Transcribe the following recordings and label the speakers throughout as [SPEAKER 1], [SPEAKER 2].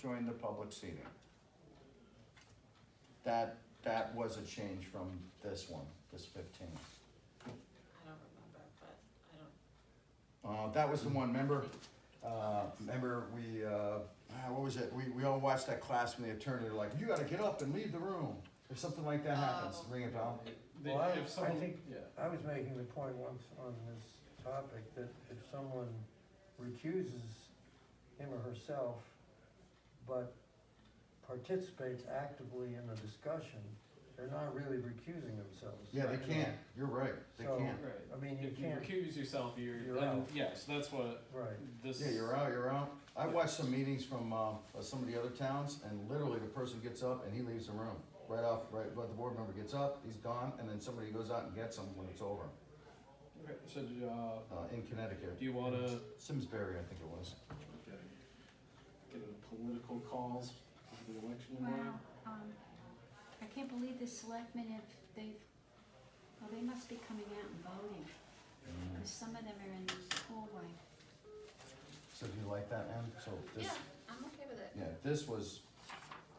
[SPEAKER 1] joined the public seating. That, that was a change from this one, this fifteen.
[SPEAKER 2] I don't remember, but I don't,
[SPEAKER 1] Uh, that was the one, remember, uh, remember we, uh, ah, what was it, we, we all watched that class when the attorney, were like, you gotta get up and leave the room, or something like that happens,
[SPEAKER 2] Oh.
[SPEAKER 1] ring a bell?
[SPEAKER 3] They-
[SPEAKER 4] Well, I- I
[SPEAKER 3] if someone-
[SPEAKER 4] think-
[SPEAKER 3] yeah.
[SPEAKER 4] I was making the point once on this topic that if someone recuses him or herself, but participates actively in the discussion, they're not really recusing themselves.
[SPEAKER 1] Yeah, they can't, you're right, they
[SPEAKER 4] So-
[SPEAKER 1] can't,
[SPEAKER 3] Right.
[SPEAKER 4] I mean, you
[SPEAKER 3] If you
[SPEAKER 4] can't-
[SPEAKER 3] recuse yourself, you're,
[SPEAKER 4] You're
[SPEAKER 3] then,
[SPEAKER 4] out.
[SPEAKER 3] yes, that's what
[SPEAKER 4] Right,
[SPEAKER 3] this.
[SPEAKER 1] yeah, you're out, you're out. I watched some meetings from, uh, some of the other towns, and literally the person gets up and he leaves the room, right off, right, but the board member gets up, he's gone, and then somebody goes out and gets him when it's over,
[SPEAKER 3] Okay, So, uh,
[SPEAKER 1] uh, in Connecticut.
[SPEAKER 3] do you wanna
[SPEAKER 1] Simsbury, I think it was.
[SPEAKER 3] get into political calls for the election
[SPEAKER 5] Wow, um, I can't believe the selectmen have, they've, well, they must be coming out and voting,
[SPEAKER 3] Mm-hmm.
[SPEAKER 5] because some of them are in the hallway.
[SPEAKER 1] So do you like that, Em? So this,
[SPEAKER 2] yeah, I'm okay with it.
[SPEAKER 1] yeah, this was,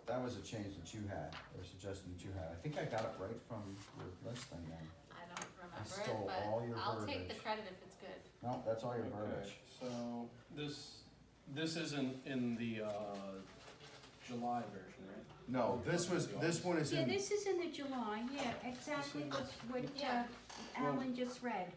[SPEAKER 1] that was a change that you had, or suggestion that you had. I think I got it right from your list thing, Em.
[SPEAKER 2] I don't
[SPEAKER 1] stole
[SPEAKER 2] remember
[SPEAKER 1] all
[SPEAKER 2] it,
[SPEAKER 1] your
[SPEAKER 2] but I'll take the
[SPEAKER 1] verbiage.
[SPEAKER 2] credit if it's good.
[SPEAKER 1] No, that's all your
[SPEAKER 3] Okay,
[SPEAKER 1] verbiage.
[SPEAKER 3] so this, this isn't in the, uh, July version, right?
[SPEAKER 1] No, this was, this one is
[SPEAKER 5] Yeah,
[SPEAKER 1] in,
[SPEAKER 5] this is in the July, yeah, exactly what, what uh,
[SPEAKER 2] Yeah.
[SPEAKER 5] Alan just read,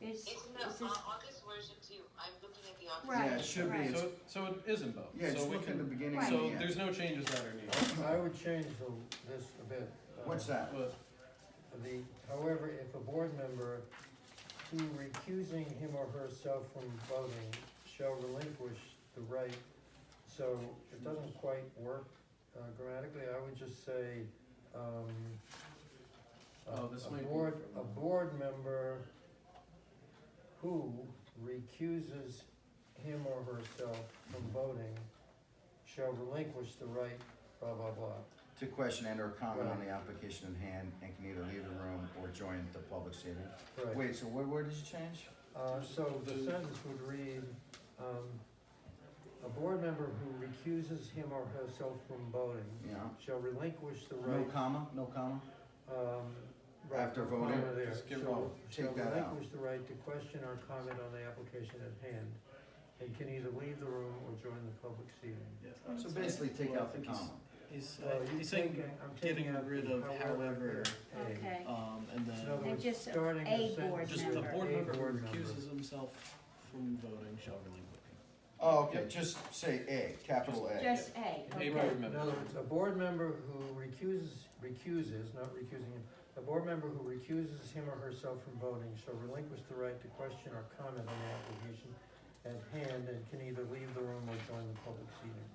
[SPEAKER 5] is,
[SPEAKER 6] It's in the
[SPEAKER 5] is this,
[SPEAKER 6] uh, August version too. I'm looking at the August.
[SPEAKER 5] Right,
[SPEAKER 1] yeah, it should be.
[SPEAKER 5] right.
[SPEAKER 1] It's-
[SPEAKER 3] So, so it isn't both.
[SPEAKER 1] Yeah,
[SPEAKER 3] So
[SPEAKER 1] just
[SPEAKER 3] we
[SPEAKER 1] look in the
[SPEAKER 3] can-
[SPEAKER 1] beginning
[SPEAKER 5] Right.
[SPEAKER 3] So
[SPEAKER 1] and the
[SPEAKER 3] there's
[SPEAKER 1] end.
[SPEAKER 3] no changes that are needed,
[SPEAKER 4] I would change the, this a bit. uh,
[SPEAKER 1] What's that?
[SPEAKER 3] but,
[SPEAKER 4] The, however, if a board member who recusing him or herself from voting shall relinquish the right, so it doesn't quite work uh, grammatically, I would just say, um, a-
[SPEAKER 3] Oh, this might
[SPEAKER 4] A
[SPEAKER 3] be
[SPEAKER 4] board,
[SPEAKER 3] from-
[SPEAKER 4] a board member who recuses him or herself from voting shall relinquish the right, blah, blah, blah.
[SPEAKER 1] To question and or comment on the application in hand and can either leave the room or join the public seating.
[SPEAKER 4] Right.
[SPEAKER 1] Wait, so where, where did you change?
[SPEAKER 4] Uh, so the sentence would read, um, a board member who recuses him or herself from voting
[SPEAKER 1] Yeah,
[SPEAKER 4] shall relinquish the
[SPEAKER 1] no
[SPEAKER 4] right,
[SPEAKER 1] comma, no comma?
[SPEAKER 4] um. right,
[SPEAKER 1] After
[SPEAKER 4] no
[SPEAKER 1] voting,
[SPEAKER 4] comma there,
[SPEAKER 3] just give
[SPEAKER 4] shall-
[SPEAKER 3] all-
[SPEAKER 1] take that out.
[SPEAKER 4] Shall relinquish the right to question or comment on the application at hand, and can either leave the room or join the public seating.
[SPEAKER 1] So basically take
[SPEAKER 7] Well, I
[SPEAKER 1] out the
[SPEAKER 7] think he's-
[SPEAKER 1] comma.
[SPEAKER 7] He's,
[SPEAKER 4] Well,
[SPEAKER 7] uh,
[SPEAKER 4] you
[SPEAKER 7] he's saying,
[SPEAKER 4] take it- I'm
[SPEAKER 7] getting
[SPEAKER 4] taking out
[SPEAKER 7] rid of
[SPEAKER 4] the
[SPEAKER 7] however,
[SPEAKER 4] there, and-
[SPEAKER 5] okay,
[SPEAKER 7] um, and
[SPEAKER 4] In
[SPEAKER 7] then
[SPEAKER 4] other
[SPEAKER 5] They're
[SPEAKER 4] words,
[SPEAKER 5] just a
[SPEAKER 4] starting the
[SPEAKER 5] board
[SPEAKER 4] sentence-
[SPEAKER 7] just the
[SPEAKER 5] member.
[SPEAKER 7] board
[SPEAKER 4] A
[SPEAKER 7] member
[SPEAKER 4] board
[SPEAKER 7] who
[SPEAKER 4] member.
[SPEAKER 7] recuses himself from voting shall relinquish.
[SPEAKER 1] Oh, okay, just say A, capital A.
[SPEAKER 5] just A,
[SPEAKER 3] A
[SPEAKER 5] okay.
[SPEAKER 3] board
[SPEAKER 4] In
[SPEAKER 3] member.
[SPEAKER 4] other words, a board member who recuses, recuses, not recusing him, a board member who recuses him or herself from voting shall relinquish the right to question or comment on the application at hand and can either leave the room or join the public seating.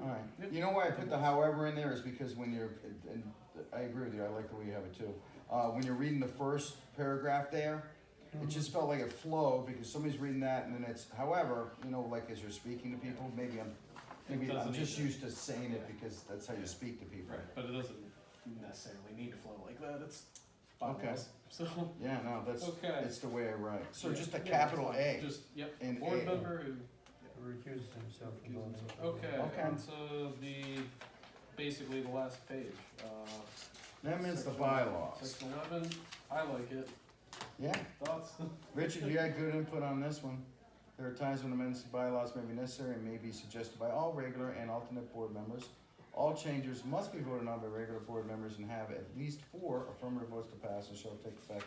[SPEAKER 1] Alright, you know why I put the however in there is because when you're, and I agree with you, I like the way you have it too. Uh, when you're reading the first paragraph there, it just felt like it flowed because somebody's reading that and then it's however, you know, like as you're speaking to people, maybe I'm, maybe I'm
[SPEAKER 3] doesn't
[SPEAKER 1] just
[SPEAKER 3] either.
[SPEAKER 1] used to saying it because that's how you speak to people.
[SPEAKER 3] right, but it doesn't necessarily need to flow like that, it's
[SPEAKER 1] Okay.
[SPEAKER 3] bylaws, so.
[SPEAKER 1] Yeah, no, that's,
[SPEAKER 3] Okay.
[SPEAKER 1] it's the way I write. So
[SPEAKER 3] Yeah,
[SPEAKER 1] just a
[SPEAKER 3] yeah,
[SPEAKER 1] capital
[SPEAKER 3] that's fine.
[SPEAKER 1] A
[SPEAKER 3] Just, yep,
[SPEAKER 1] and A.
[SPEAKER 3] board member who
[SPEAKER 4] Who recuses himself from
[SPEAKER 3] Recuse
[SPEAKER 4] voting.
[SPEAKER 3] himself. Okay,
[SPEAKER 1] Okay.
[SPEAKER 3] and so the, basically the last page, uh.
[SPEAKER 1] That means the
[SPEAKER 3] section-
[SPEAKER 1] bylaws.
[SPEAKER 3] Section eleven, I like it,
[SPEAKER 1] Yeah,
[SPEAKER 3] thoughts?
[SPEAKER 1] Richard, you had good input on this one. There are times when amendments to bylaws may be necessary and may be suggested by all regular and alternate board members. All changes must be voted on by regular board members and have at least four affirmative votes to pass and shall take effect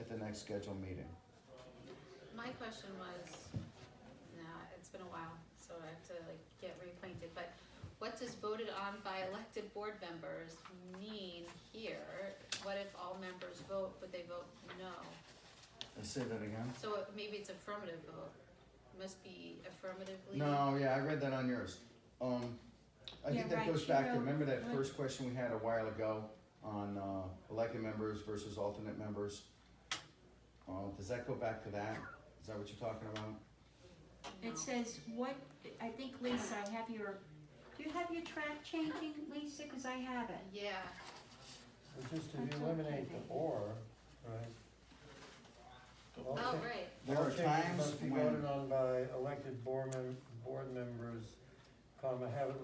[SPEAKER 1] at the next scheduled meeting.
[SPEAKER 2] My question was, nah, it's been a while, so I have to like get reacquainted, but what does voted on by elected board members mean here? What if all members vote, but they vote no?
[SPEAKER 1] I say that again?
[SPEAKER 2] So it- maybe it's affirmative vote, must be affirmatively.
[SPEAKER 1] No, yeah, I read that on yours. Um, I think
[SPEAKER 5] Yeah,
[SPEAKER 1] that
[SPEAKER 5] right,
[SPEAKER 1] goes
[SPEAKER 5] she
[SPEAKER 1] back to,
[SPEAKER 5] wrote-
[SPEAKER 1] remember that
[SPEAKER 5] what-
[SPEAKER 1] first question we had a while ago on, uh, elected members versus alternate members? Uh, does that go back to that? Is that what you're talking about?
[SPEAKER 5] It says what, I think Lisa, I have your, do you have your track changing, Lisa, cause I have it.
[SPEAKER 2] Yeah,
[SPEAKER 4] But just if
[SPEAKER 5] That's
[SPEAKER 4] you
[SPEAKER 5] okay,
[SPEAKER 4] eliminate the
[SPEAKER 5] baby.
[SPEAKER 4] or, right? all
[SPEAKER 2] oh,
[SPEAKER 4] cha-
[SPEAKER 2] right,
[SPEAKER 1] There
[SPEAKER 4] all
[SPEAKER 1] are
[SPEAKER 4] changes
[SPEAKER 1] times
[SPEAKER 4] Must be
[SPEAKER 1] when-
[SPEAKER 4] voted on by elected board mem- board members, comma, have at